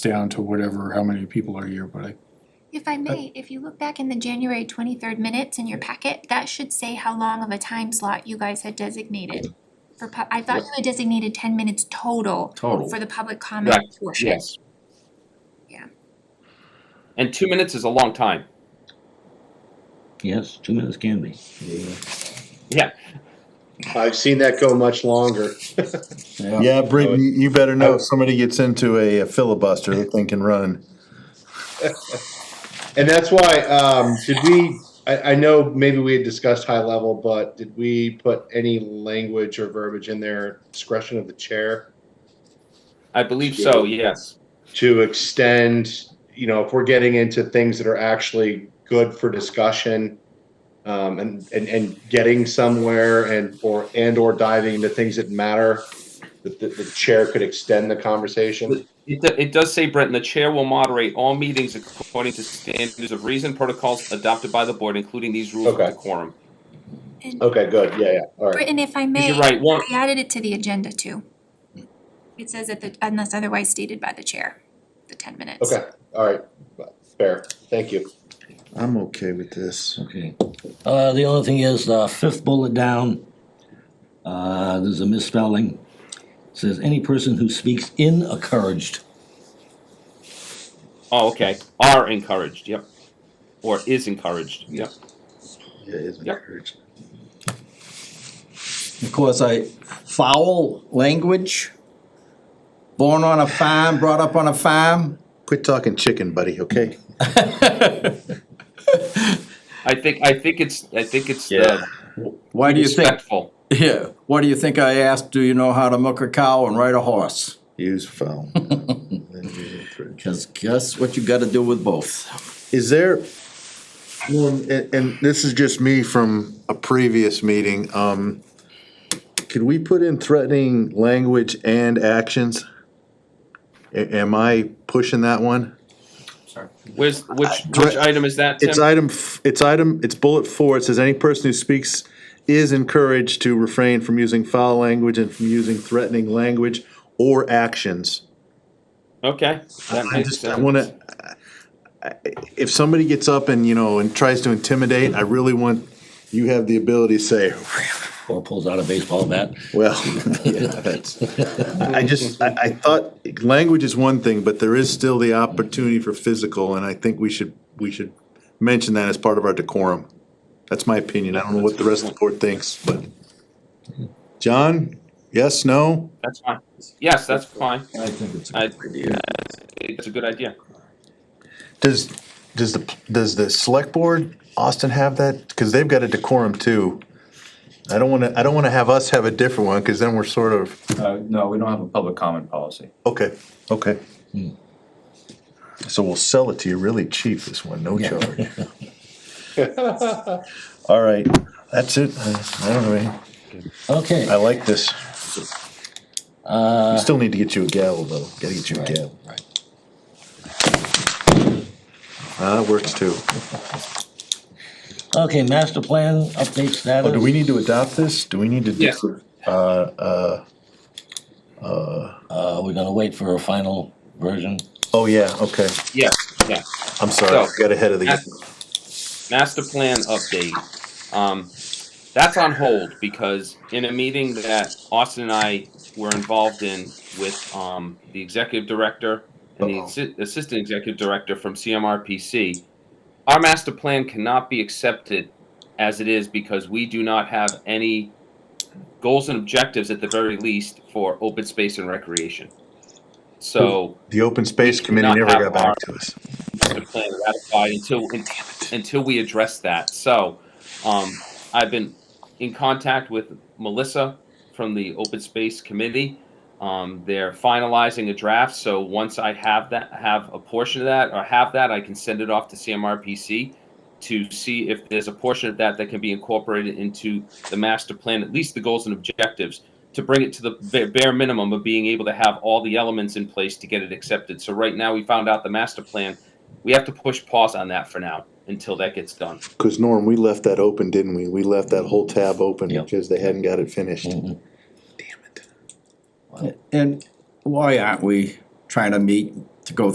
down to whatever, how many people are here, but I, If I may, if you look back in the January twenty-third minutes in your packet, that should say how long of a time slot you guys had designated. For pub, I thought you had designated ten minutes total Total. for the public comment portion. Yes. Yeah. And two minutes is a long time. Yes, two minutes can be. Yeah. I've seen that go much longer. Yeah, Brittany, you better know if somebody gets into a filibuster, that thing can run. And that's why, um, did we, I, I know maybe we had discussed high level, but did we put any language or verbiage in there, discretion of the chair, I believe so, yes. to extend, you know, if we're getting into things that are actually good for discussion, um, and, and, and getting somewhere and, or, and or diving into things that matter, that the, the chair could extend the conversation? It, do- it does say, Brenton, the chair will moderate all meetings according to standards of reason protocols adopted by the board, including these rules of Okay. decorum. And Okay, good, yeah, yeah, all right. Britton, if I may. You're right, one, I added it to the agenda too. It says that the, unless otherwise stated by the chair, the ten minutes. Okay, all right, fair, thank you. I'm okay with this. Okay. Uh, the only thing is, uh, fifth bullet down, uh, there's a misspelling. Says any person who speaks in encouraged. oh, okay, are encouraged, yep. Or is encouraged, yep. Yeah, it's Yep. encouraged. because I foul language. Born on a farm, brought up on a farm. Quit talking chicken, buddy, okay? I think, I think it's, I think it's Yeah. the Why do you think? respectful. Yeah. Why do you think I asked? Do you know how to milk a cow and ride a horse? Use phone. Because guess what you got to do with both. Is there, well, and, and this is just me from a previous meeting, um, could we put in threatening language and actions? A- am I pushing that one? Where's, which, which item is that, It's Tim? item, f- it's item, it's bullet four, it says any person who speaks is encouraged to refrain from using foul language and from using threatening language or actions. Okay. that I makes just, I sense. wanna, I- if somebody gets up and, you know, and tries to intimidate, I really want, you have the ability to say, Or pulls out a baseball bat. well, yeah, that's, I I just, I, I thought, language is one thing, but there is still the opportunity for physical, and I think we should, we should mention that as part of our decorum. That's my opinion, I don't know what the rest of the board thinks, but. John, yes, no? That's fine. Yes, that's fine. I think it's I- It's a good idea. Does, does the, does the select board, Austin, have that? Because they've got a decorum too. I don't want to, I don't want to have us have a different one, because then we're sort of, Uh, no, we don't have a public comment policy. okay, okay. So we'll sell it to you really cheap, this one, no charge. All right, that's it. I I don't know, man. I Okay. like this. We still need to get you a gavel, though. Gotta get you a Right, gavel. right. Uh, that works too. Okay, master plan update status. Oh, do we need to adopt this? Do we need to? do- Yes. Uh, uh, Uh, we're gonna wait for a final version. oh, yeah, okay. Yeah, yeah. I'm sorry, I So- got ahead of the. Master- Master plan update. Um, that's on hold because in a meeting that Austin and I were involved in with um, the executive director and the Uh-oh. assi- assistant executive director from CMRPC, our master plan cannot be accepted as it is because we do not have any goals and objectives at the very least for open space and recreation. So The Open Space do Committee not never have got back our- to us. the plan ratified until until we address that. So, um, I've been in contact with Melissa from the Open Space Committee. Um, they're finalizing a draft, so once I have that, have a portion of that, or have that, I can send it off to CMRPC to see if there's a portion of that that can be incorporated into the master plan, at least the goals and objectives, to bring it to the ba- bare minimum of being able to have all the elements in place to get it accepted. So right now, we found out the master plan we have to push pause on that for now until that gets done. Because Norm, we left that open, didn't we? We left that whole tab open Yeah. because they hadn't got it finished. Mm-hmm. Mhm. And why aren't we trying to meet to go